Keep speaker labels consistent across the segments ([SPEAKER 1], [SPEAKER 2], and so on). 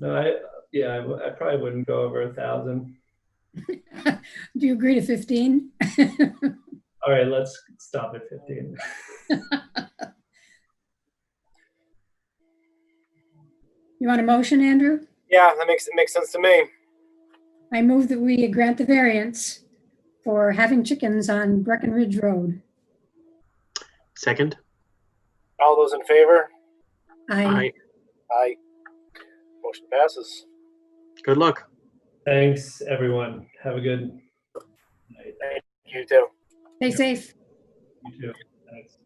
[SPEAKER 1] No, I, yeah, I w- I probably wouldn't go over a thousand.
[SPEAKER 2] Do you agree to 15?
[SPEAKER 1] All right, let's stop at fifteen.
[SPEAKER 2] You want a motion, Andrew?
[SPEAKER 3] Yeah, that makes, it makes sense to me.
[SPEAKER 2] I move that we grant the variance for having chickens on Breckenridge Road.
[SPEAKER 4] Second?
[SPEAKER 3] All those in favor?
[SPEAKER 2] I,
[SPEAKER 4] Aye.
[SPEAKER 3] Aye. Motion passes.
[SPEAKER 4] Good luck.
[SPEAKER 1] Thanks, everyone. Have a good night.
[SPEAKER 3] You too.
[SPEAKER 2] stay safe.
[SPEAKER 1] You too. Thanks.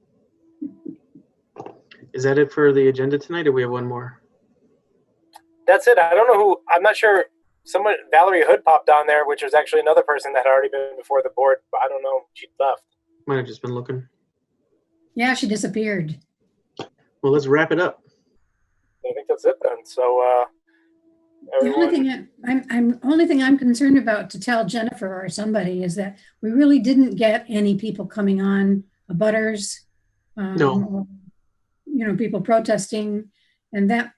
[SPEAKER 4] Is that it for the agenda tonight, or we have one more?
[SPEAKER 3] That's it. I don't know who, I'm not sure. Someone, Valerie Hood popped on there, which was actually another person that had already been before the board, but I don't know. She left.
[SPEAKER 4] Might have just been looking.
[SPEAKER 2] Yeah, she disappeared.
[SPEAKER 4] Well, let's wrap it up.
[SPEAKER 3] I think that's it then. So, uh,
[SPEAKER 2] The only
[SPEAKER 3] everyone,
[SPEAKER 2] thing I- I'm, I'm, only thing I'm concerned about to tell Jennifer or somebody is that we really didn't get any people coming on butters.
[SPEAKER 4] No.
[SPEAKER 2] You know, people protesting and that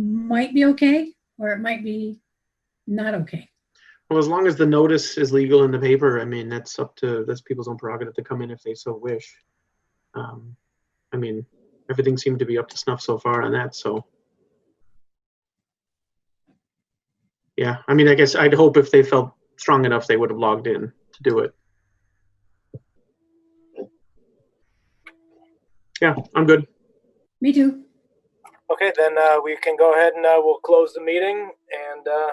[SPEAKER 2] might be okay, or it might be not okay.
[SPEAKER 4] Well, as long as the notice is legal in the paper, I mean, that's up to, that's people's own prerogative to come in if they so wish. Um, I mean, everything seemed to be up to snuff so far on that, so. Yeah, I mean, I guess I'd hope if they felt strong enough, they would have logged in to do it. Yeah, I'm good.
[SPEAKER 2] Me too.
[SPEAKER 3] okay, then, uh, we can go ahead and, uh, we'll close the meeting and, uh,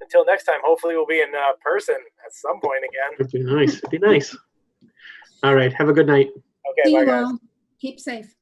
[SPEAKER 3] until next time, hopefully we'll be in, uh, person at some point again.
[SPEAKER 4] It'd be nice. It'd be nice. All right. Have a good night.
[SPEAKER 3] Okay,
[SPEAKER 2] See
[SPEAKER 3] bye
[SPEAKER 2] you
[SPEAKER 3] guys.
[SPEAKER 2] all. Keep safe.